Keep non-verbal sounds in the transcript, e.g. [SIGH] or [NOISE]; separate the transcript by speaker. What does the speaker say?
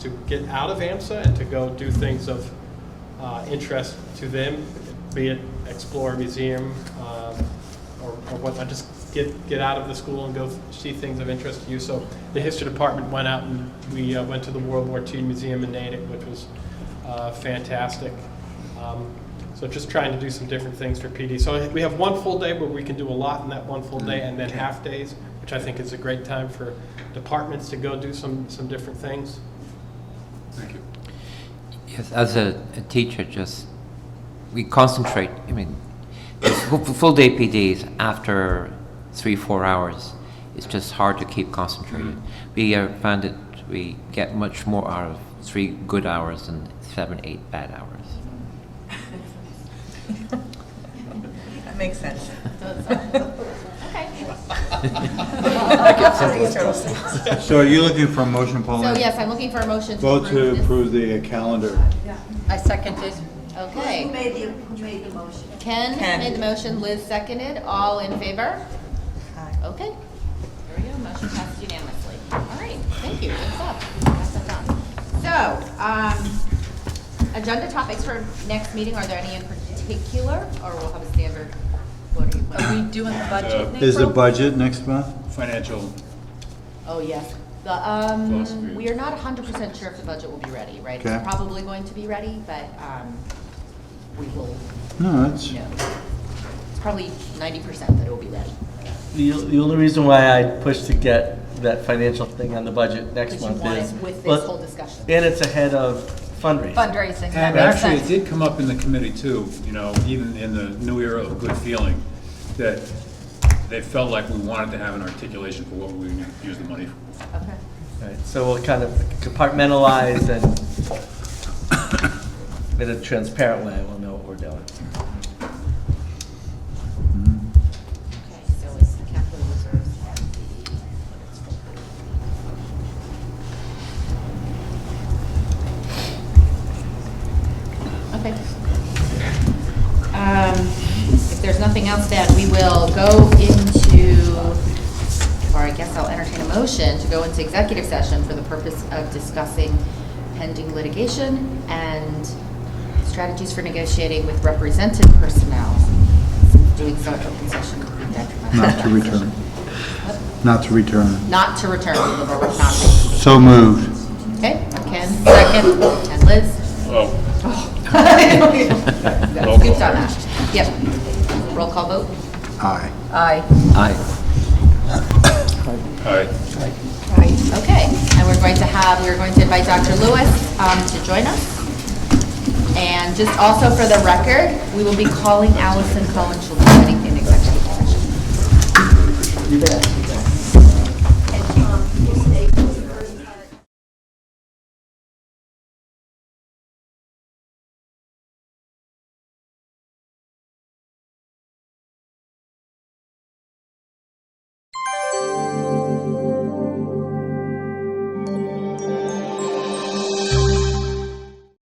Speaker 1: to get out of AMSA and to go do things of uh, interest to them, be it explore a museum um, or or whatnot, just get, get out of the school and go see things of interest to you. So the history department went out and we uh, went to the World War II Museum in Natick, which was uh, fantastic. Um, So just trying to do some different things for PD. So we have one full day where we can do a lot in that one full day, and then half-days, which I think is a great time for departments to go do some, some different things.
Speaker 2: Thank you.
Speaker 3: Yes, as a, a teacher, just, we concentrate, I mean, full day PDs after three, four hours, it's just hard to keep concentrated. We uh, found that we get much more out of three good hours than seven, eight bad hours.
Speaker 4: That makes sense. [LAUGHS]
Speaker 5: So are you looking for a motion,
Speaker 6: So
Speaker 5: Paula?
Speaker 6: Oh, yes, I'm looking for a motion to
Speaker 5: Vote
Speaker 6: approve
Speaker 5: to
Speaker 6: this.
Speaker 5: approve the uh, calendar.
Speaker 6: I seconded.
Speaker 7: Who
Speaker 6: Okay.
Speaker 7: made the, who made the motion?
Speaker 6: Ken
Speaker 4: Ken.
Speaker 6: made the motion, Liz seconded. All in favor?
Speaker 4: Aye.
Speaker 6: Okay. There we go. Motion passed unanimously. All right, thank you. What's up? That's us on. So, um, agenda topics for next meeting, are there any in particular? Or we'll have a standard, what are you,
Speaker 7: Are we doing the budget next?
Speaker 5: Uh, Is the budget next month?
Speaker 2: Financial,
Speaker 6: oh, yes. The, um,
Speaker 2: Philosophy.
Speaker 6: we are not hundred percent sure if the budget will be ready, right?
Speaker 5: Okay.
Speaker 6: It's probably going to be ready, but, um, we will
Speaker 5: No, it's,
Speaker 6: No. It's probably ninety percent that it will be ready.
Speaker 8: The, the only reason why I pushed to get that financial thing on the budget next
Speaker 6: Because you
Speaker 8: month
Speaker 6: want
Speaker 8: is.
Speaker 6: it with this
Speaker 8: well,
Speaker 6: whole discussion.
Speaker 8: And it's ahead of fundraising.
Speaker 6: Fundraising, that
Speaker 2: and
Speaker 6: makes
Speaker 2: actually, it
Speaker 6: sense.
Speaker 2: did come up in the committee too, you know, even in the new era of good feeling, that they felt like we wanted to have an articulation for what we would use the money for.
Speaker 6: Okay.
Speaker 8: Right, So we'll kind of compartmentalize and [COUGHS] in a transparent way, we'll know what we're doing.
Speaker 6: Okay, so it's the capital reserves and the, Okay. Um, If there's nothing else, then we will go into, or I guess I'll entertain a motion to go into executive session for the purpose of discussing pending litigation and strategies for negotiating with represented personnel. Doing so in open session would be detrimental.
Speaker 5: not to
Speaker 6: [LAUGHS]
Speaker 5: return. Not to return.
Speaker 6: Not to return to the board, not to.
Speaker 5: So moved.
Speaker 6: Okay, Ken, second, and Liz.
Speaker 2: Oh,
Speaker 6: Good job, Ash. Yep. Roll call vote?
Speaker 5: Aye.
Speaker 6: Aye.
Speaker 3: Aye.
Speaker 2: all right.
Speaker 6: Okay, and we're going to have, we're going to invite Dr. Lewis um, to join us. And just also for the record, we will be calling Allison Cohen, she'll be sitting